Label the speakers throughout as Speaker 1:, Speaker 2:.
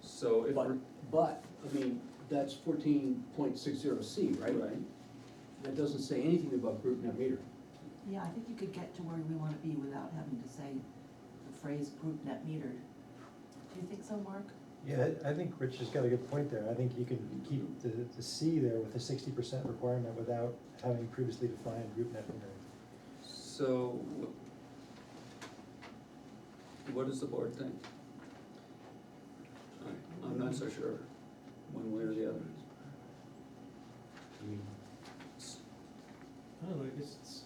Speaker 1: So if
Speaker 2: But,
Speaker 1: we're,
Speaker 2: but, I mean, that's fourteen point six zero C, right?
Speaker 1: right,
Speaker 2: That doesn't say anything about group net metering.
Speaker 3: Yeah, I think you could get to where we wanna be without having to say the phrase group net metered. Do you think so, Mark?
Speaker 4: Yeah, I I think Rich has got a good point there. I think you can keep the, the C there with the sixty percent requirement without having previously defined group net metering.
Speaker 1: so wh- what does the board think? I- I'm not so sure, one way or the other.
Speaker 5: I mean,
Speaker 1: S-
Speaker 5: I don't know, I guess it's,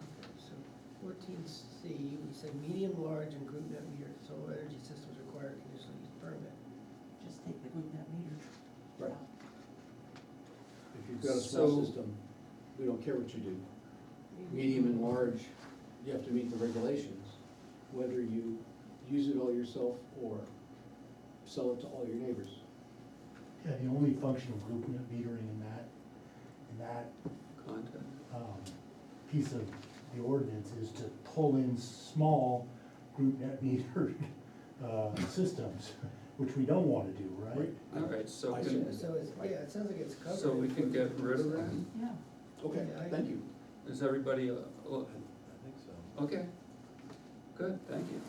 Speaker 6: Okay, so fourteen C, we said medium, large, and group net meter solar energy systems require a conditional use permit.
Speaker 3: Just take the group net metered.
Speaker 2: Right.
Speaker 3: out.
Speaker 2: If you've got a small
Speaker 1: So-
Speaker 2: system, we don't care what you do. Medium and large, you have to meet the regulations, whether you use it all yourself or sell it to all your neighbors.
Speaker 7: Yeah, the only functional group net metering in that, in that,
Speaker 1: Contact,
Speaker 7: um, piece of the ordinance is to pull in small group net metered, uh, systems, which we don't wanna do, right?
Speaker 1: all right, so
Speaker 2: I
Speaker 1: can,
Speaker 2: see.
Speaker 6: So it's, yeah, it sounds like it's covered.
Speaker 1: so we
Speaker 6: in
Speaker 1: can get
Speaker 6: 14.6.
Speaker 1: rid of that?
Speaker 3: Yeah,
Speaker 2: Okay,
Speaker 6: Yeah, I-
Speaker 2: thank you.
Speaker 1: Is everybody, uh,
Speaker 5: I
Speaker 1: oh,
Speaker 5: I think so.
Speaker 1: okay, good, thank you.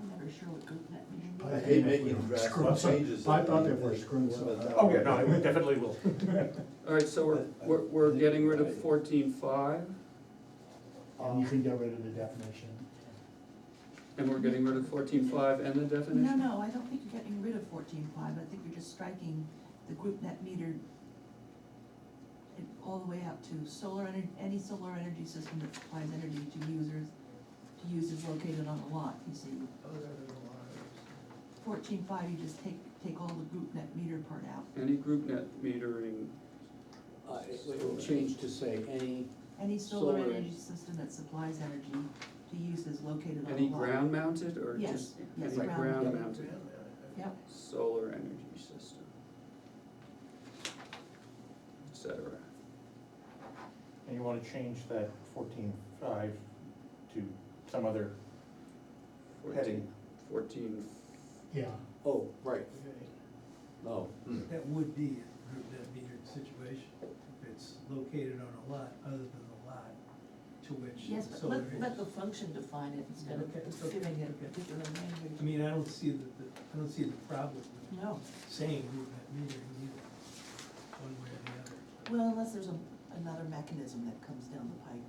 Speaker 3: I'm never sure what group net metered means.
Speaker 7: I
Speaker 5: hate
Speaker 7: think
Speaker 5: making
Speaker 7: we're
Speaker 5: drastic
Speaker 7: screwing some-
Speaker 5: changes
Speaker 7: I
Speaker 5: that
Speaker 7: thought they
Speaker 5: we-
Speaker 7: were screwing something up.
Speaker 5: Oh, yeah, no,
Speaker 7: it
Speaker 8: definitely will.
Speaker 1: All right, so
Speaker 5: I-
Speaker 1: we're,
Speaker 5: I
Speaker 1: we're, we're
Speaker 5: think
Speaker 1: getting rid
Speaker 5: I-
Speaker 1: of fourteen five,
Speaker 7: And you can get rid of the definition.
Speaker 1: and we're getting rid of fourteen five and the definition?
Speaker 3: No, no, I don't think you're getting rid of fourteen five, I think you're just striking the group net metered it all the way out to solar energy, any solar energy system that supplies energy to users, to users located on a lot, you see.
Speaker 6: Oh, no, there's a lot of
Speaker 3: Fourteen five, you just take, take all the group net metered part out,
Speaker 1: Any group net metering,
Speaker 2: Uh, it will change to say any,
Speaker 3: any solar
Speaker 2: Solar
Speaker 3: energy system that supplies energy to users located on a lot.
Speaker 1: any ground mounted or
Speaker 3: Yes,
Speaker 1: just,
Speaker 3: yes,
Speaker 1: any
Speaker 3: ground
Speaker 1: ground
Speaker 3: mounted.
Speaker 1: mounted
Speaker 6: ground mounted, okay.
Speaker 3: Yep,
Speaker 1: solar energy system? Et cetera.
Speaker 8: And you wanna change that fourteen five to some other,
Speaker 1: Fourteen,
Speaker 8: Heading.
Speaker 1: fourteen,
Speaker 7: Yeah.
Speaker 2: oh, right,
Speaker 6: Okay.
Speaker 2: oh. hmm.
Speaker 6: That would be a group net metered situation, if it's located on a lot other than the lot to which
Speaker 3: yes,
Speaker 6: the
Speaker 3: but
Speaker 6: solar
Speaker 3: let,
Speaker 6: is.
Speaker 3: let the function define it instead
Speaker 6: Okay,
Speaker 3: of
Speaker 6: okay,
Speaker 3: giving it
Speaker 6: okay.
Speaker 3: a particular
Speaker 6: I
Speaker 3: language.
Speaker 6: mean, uh, I don't see the, the- I don't see the problem with
Speaker 3: No,
Speaker 6: saying group net metering either, one way or the other.
Speaker 3: well, unless there's a, another mechanism that comes down the pipe.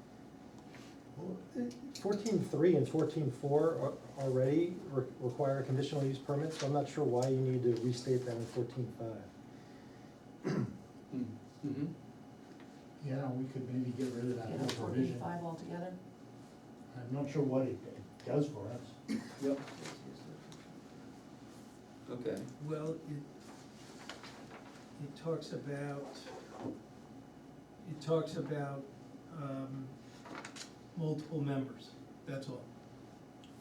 Speaker 4: Fourteen three and fourteen four already re- require conditional use permits, so I'm not sure why you need to restate that in fourteen five.
Speaker 2: Hmm. Mhm.
Speaker 7: Yeah, we could maybe get rid of that
Speaker 3: Get
Speaker 7: whole
Speaker 3: a fourteen
Speaker 7: provision.
Speaker 3: five altogether?
Speaker 7: I'm not sure what it it does for us.
Speaker 2: Yep,
Speaker 1: okay,
Speaker 6: Well, it, it talks about, it talks about, um, multiple members, that's all.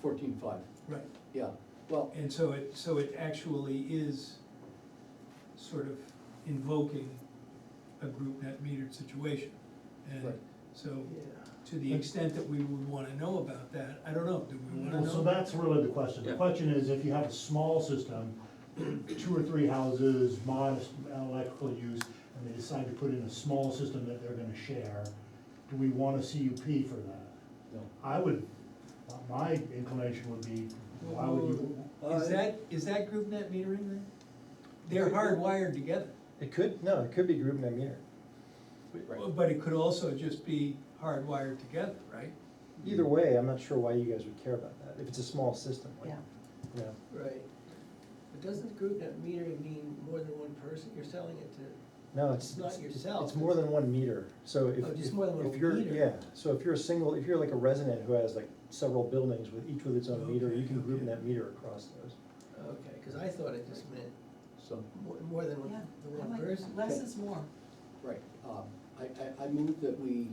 Speaker 2: fourteen five,
Speaker 6: Right.
Speaker 2: yeah, well,
Speaker 6: And so it, so it actually is sort of invoking a group net metered situation. And
Speaker 2: Right.
Speaker 6: so, to the extent that we would wanna know about that, I don't know, do we wanna know?
Speaker 7: Well, so that's really the question. The
Speaker 1: Yeah.
Speaker 7: question is, if you have a small system, two or three houses, modest electrical use, and they decide to put in a small system that they're gonna share, do we want a CUP for that?
Speaker 2: no.
Speaker 7: I would, my inclination would be, why would you?
Speaker 6: Is that, is that group net metering then? They're hardwired together.
Speaker 4: It could, no, it could be group net meter.
Speaker 2: Right.
Speaker 6: But it could also just be hardwired together, right?
Speaker 4: Either way, I'm not sure why you guys would care about that, if it's a small system, like,
Speaker 3: Yeah,
Speaker 4: you know.
Speaker 6: Right. But doesn't group net metering mean more than one person? You're selling it to,
Speaker 4: No, it's,
Speaker 6: It's not
Speaker 4: it's, it's
Speaker 6: yourself,
Speaker 4: it's more
Speaker 6: it's-
Speaker 4: than one meter, so if,
Speaker 6: Oh, just
Speaker 4: if-
Speaker 6: more than one
Speaker 4: if you're,
Speaker 6: meter.
Speaker 4: yeah, so if you're a single, if you're like a resident who has like several buildings with each with its own meter, you can group
Speaker 6: Okay, okay.
Speaker 4: that meter across those.
Speaker 6: okay, cause I thought it just meant
Speaker 2: So,
Speaker 6: more, more than
Speaker 3: yeah,
Speaker 6: one, the
Speaker 3: I
Speaker 6: one
Speaker 3: like,
Speaker 6: person.
Speaker 3: less is more.
Speaker 2: right, um, I, I, I move that we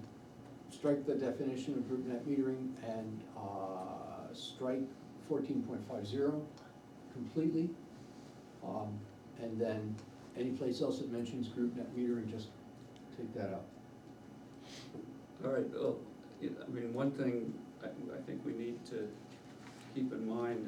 Speaker 2: strike the definition of group net metering and, uh, strike fourteen point five zero completely. Um, and then any place else that mentions group net metering, just take that out.
Speaker 1: all right, well, I mean, one thing I, I think we need to keep in mind